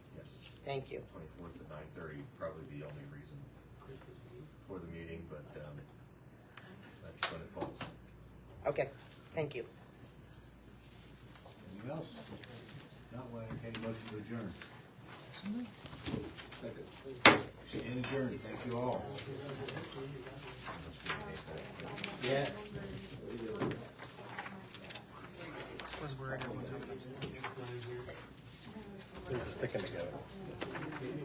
Thank you. Twenty-fourth at nine thirty, probably the only reason for the meeting, but, um, that's when it falls. Okay, thank you. Anything else? Not one, I can motion to adjourn. Second. And adjourn, thank you all. Yeah. They're sticking together.